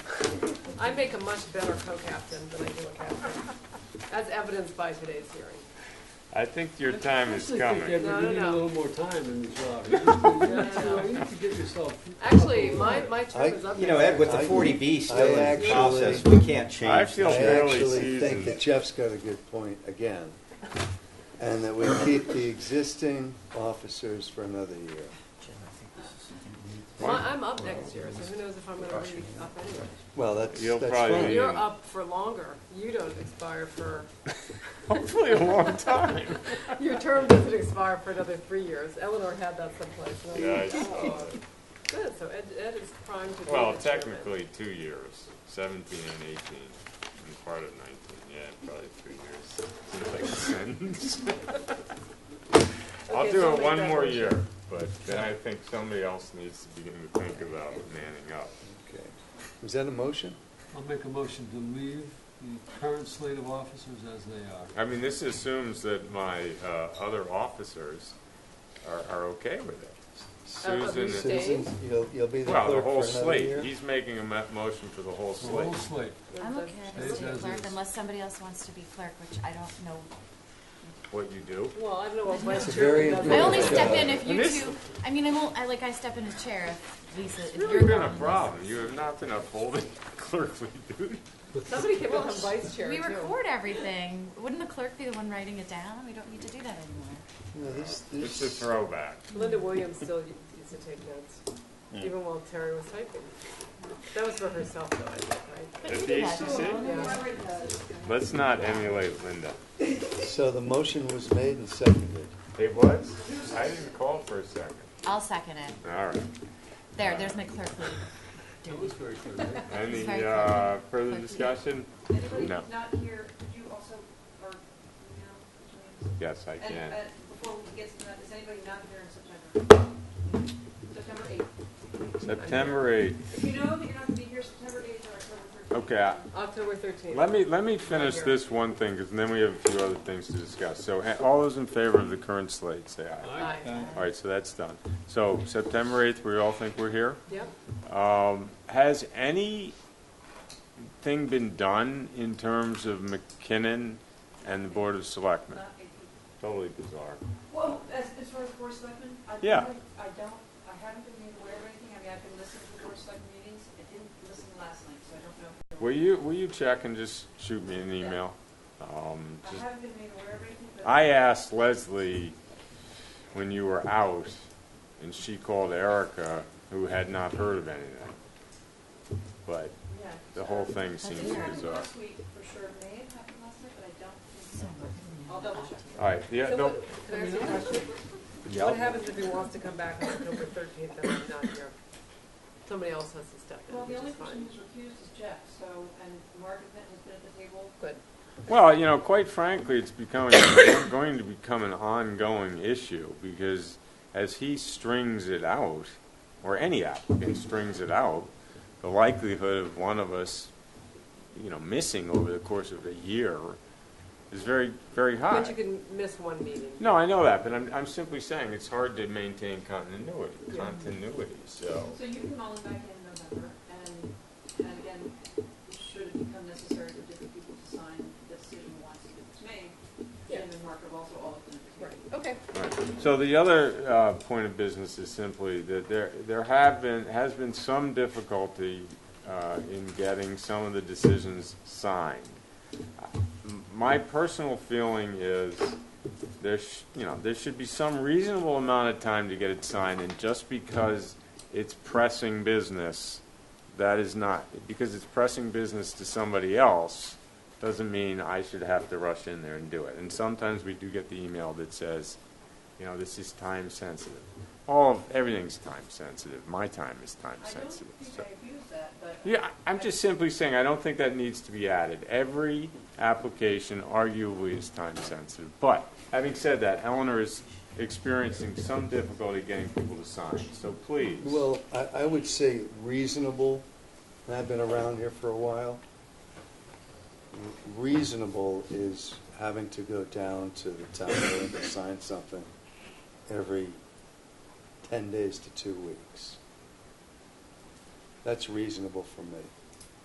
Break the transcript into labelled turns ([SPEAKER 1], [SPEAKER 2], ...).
[SPEAKER 1] I make a much better co-captain than I do a captain, as evidenced by today's hearing.
[SPEAKER 2] I think your time is coming.
[SPEAKER 1] No, no,
[SPEAKER 3] I actually think that we need a
[SPEAKER 1] no.
[SPEAKER 3] little more time in this job. You need to-
[SPEAKER 1] No.
[SPEAKER 3] You need to get yourself.
[SPEAKER 1] Actually, my, my term is up.
[SPEAKER 4] You know, Ed, with the 40B still
[SPEAKER 5] I
[SPEAKER 4] in
[SPEAKER 5] actually-
[SPEAKER 4] process, we can't
[SPEAKER 2] I
[SPEAKER 4] change.
[SPEAKER 2] feel
[SPEAKER 5] I
[SPEAKER 2] fairly
[SPEAKER 5] actually think that
[SPEAKER 2] seasoned.
[SPEAKER 5] Jeff's got a good point again, and that we keep the existing officers for another year.
[SPEAKER 1] My- I'm up next year, so who knows if I'm gonna be up anyway.
[SPEAKER 5] Well, that's,
[SPEAKER 2] You'll
[SPEAKER 5] that's
[SPEAKER 2] probably
[SPEAKER 5] fine.
[SPEAKER 2] be-
[SPEAKER 1] You're up for longer. You don't expire for,
[SPEAKER 2] Hopefully a long time.
[SPEAKER 1] your term doesn't expire for another three years. Eleanor had that someplace. and I was
[SPEAKER 2] Yeah, I
[SPEAKER 1] like, "Oh." Good, so Ed, Ed is primed to be.
[SPEAKER 2] Well,
[SPEAKER 1] the chairman.
[SPEAKER 2] technically, two years, seventeen and eighteen, and part of nineteen, yeah, probably three years. Seems like a sentence. I'll
[SPEAKER 1] Okay,
[SPEAKER 2] do
[SPEAKER 1] so
[SPEAKER 2] it
[SPEAKER 1] make
[SPEAKER 2] one
[SPEAKER 1] that
[SPEAKER 2] more
[SPEAKER 1] motion.
[SPEAKER 2] year, but then I think somebody else needs to begin to think about manning up.
[SPEAKER 5] Okay. Is that a motion?
[SPEAKER 3] I'll make a motion to leave the current slate of officers as they are.
[SPEAKER 2] I mean, this assumes that my uh, other officers are, are okay with it.
[SPEAKER 1] Uh, but we
[SPEAKER 2] Susan,
[SPEAKER 1] stay-
[SPEAKER 5] Susan, you'll, you'll be the
[SPEAKER 2] well,
[SPEAKER 5] clerk for
[SPEAKER 2] the
[SPEAKER 5] another year?
[SPEAKER 2] whole slate, he's making a mo- motion for the whole
[SPEAKER 3] The whole
[SPEAKER 2] slate.
[SPEAKER 3] slate.
[SPEAKER 6] I'm okay as
[SPEAKER 3] Stays
[SPEAKER 6] city
[SPEAKER 3] as
[SPEAKER 6] clerk
[SPEAKER 3] is.
[SPEAKER 6] unless somebody else wants to be clerk, which I don't know.
[SPEAKER 2] What you do?
[SPEAKER 1] Well, I don't know what
[SPEAKER 5] It's
[SPEAKER 1] vice
[SPEAKER 5] a very
[SPEAKER 1] chairman does.
[SPEAKER 6] I
[SPEAKER 5] Yeah.
[SPEAKER 6] only step in if
[SPEAKER 2] And
[SPEAKER 6] you
[SPEAKER 2] this-
[SPEAKER 6] two, I mean, I'm, ol- I like, I step in as chair if Lisa, if
[SPEAKER 2] It's
[SPEAKER 6] you're.
[SPEAKER 2] really been
[SPEAKER 6] gone.
[SPEAKER 2] a problem, you have not been upholding clerkly duty.
[SPEAKER 1] Somebody can become vice chair
[SPEAKER 6] We
[SPEAKER 1] too.
[SPEAKER 6] record everything. Wouldn't the clerk be the one writing it down? We don't need to do that anymore.
[SPEAKER 5] No, this,
[SPEAKER 2] It's a
[SPEAKER 5] this,
[SPEAKER 2] throwback.
[SPEAKER 1] Linda Williams still u- used to take notes, even while Terry was typing. That was for herself though, I think, right?
[SPEAKER 2] At
[SPEAKER 6] But you
[SPEAKER 2] the
[SPEAKER 6] do that.
[SPEAKER 2] HCC?
[SPEAKER 6] don't you?
[SPEAKER 1] Yeah.
[SPEAKER 2] Let's not emulate Linda.
[SPEAKER 5] so the motion was made and seconded.
[SPEAKER 2] It was? I didn't call for a second.
[SPEAKER 6] I'll second it.
[SPEAKER 2] All right.
[SPEAKER 6] There, there's my clerkly.
[SPEAKER 3] That was very clear. right?
[SPEAKER 2] Any
[SPEAKER 6] Sorry,
[SPEAKER 2] uh,
[SPEAKER 6] Clinton.
[SPEAKER 2] further
[SPEAKER 6] Clinton.
[SPEAKER 2] discussion?
[SPEAKER 7] Anybody
[SPEAKER 2] No.
[SPEAKER 7] who's not here, could you also, or, you know,
[SPEAKER 2] Yes, I
[SPEAKER 7] and,
[SPEAKER 2] can.
[SPEAKER 7] uh, before we get to that, is anybody not here in September? September eighth.
[SPEAKER 2] September 8th.
[SPEAKER 7] If you know that you're not gonna be here September eighth or October thirteenth.
[SPEAKER 2] Okay, I-
[SPEAKER 1] October thirteenth.
[SPEAKER 2] Let me, let me finish this one thing, because then we have a few other things to discuss. So a- all those in favor of the current slate, say aye.
[SPEAKER 1] Aye.
[SPEAKER 2] All right, so that's done. So September 8th, we all think we're here?
[SPEAKER 1] Yep.
[SPEAKER 2] Um, has anything been done in terms of McKinnon and the Board of Selectmen?
[SPEAKER 7] Not eighteenth.
[SPEAKER 2] Totally bizarre.
[SPEAKER 7] Well, as, as far as board of selectmen, I don't,
[SPEAKER 2] Yeah.
[SPEAKER 7] think- I don't, I haven't been made aware of anything, I mean, I've been listening to the board of select meetings, I didn't listen last night, so I don't know.
[SPEAKER 2] Will you, will you check and just shoot me an email? Um,
[SPEAKER 7] I
[SPEAKER 2] just-
[SPEAKER 7] haven't been made aware of anything, but.
[SPEAKER 2] I asked Leslie when you were out, and she called Erica, who had not heard of anything. But
[SPEAKER 7] Yeah.
[SPEAKER 2] the whole thing
[SPEAKER 6] That's
[SPEAKER 2] seems
[SPEAKER 7] It happened
[SPEAKER 2] bizarre.
[SPEAKER 7] last week, for sure, may have happened last night, but I don't think
[SPEAKER 6] So,
[SPEAKER 7] so. I'll double check.
[SPEAKER 2] All right, yeah,
[SPEAKER 1] So
[SPEAKER 2] no,
[SPEAKER 1] what- Can I ask you a question?
[SPEAKER 2] yeah.
[SPEAKER 1] What happens if he wants to come back on October thirteenth and I'm not here? Somebody else has to step in,
[SPEAKER 7] Well, the
[SPEAKER 1] which
[SPEAKER 7] only
[SPEAKER 1] is
[SPEAKER 7] person
[SPEAKER 1] fine.
[SPEAKER 7] who's refused is Jeff, so, and Mark Benton has been at the table.
[SPEAKER 1] Good.
[SPEAKER 2] Well, you know, quite frankly, it's becoming it's going to become an ongoing issue because as he strings it out, or any applicant strings it out, the likelihood of one of us, you know, missing over the course of a year is very, very high.
[SPEAKER 1] But you can miss one meeting.
[SPEAKER 2] No, I know that, but I'm, I'm simply saying it's hard to maintain continuity,
[SPEAKER 1] Yeah.
[SPEAKER 2] continuity, so.
[SPEAKER 7] So you can call him back in November, and, and again, should it become necessary for different people to sign the decision once it's made, Jim and Mark have also all been at the
[SPEAKER 1] Right,
[SPEAKER 7] table.
[SPEAKER 1] okay.
[SPEAKER 2] Right. So the other uh, point of business is simply that there, there have been, has been some difficulty uh, in getting some of the decisions signed. M- My personal feeling is there, sh- you know, there should be some reasonable amount of time to get it signed, and just because it's pressing business, that is not, because it's pressing business to somebody else, doesn't mean I should have to rush in there and do it. And sometimes we do get the email that says, you know, this is time sensitive. All, of everything's time sensitive. My time is time
[SPEAKER 7] I don't
[SPEAKER 2] sensitive.
[SPEAKER 7] think
[SPEAKER 2] so-
[SPEAKER 7] I abuse that, but.
[SPEAKER 2] yeah, I- I'm just simply saying, I don't think that needs to be added. Every application arguably is time-sensitive. But, having said that, Eleanor is experiencing some difficulty getting people to sign, so please.
[SPEAKER 5] Well, I, I would say reasonable, and I've been around here for a while. Reasonable is having to go down to the town and sign something every ten days to two weeks. That's reasonable for me.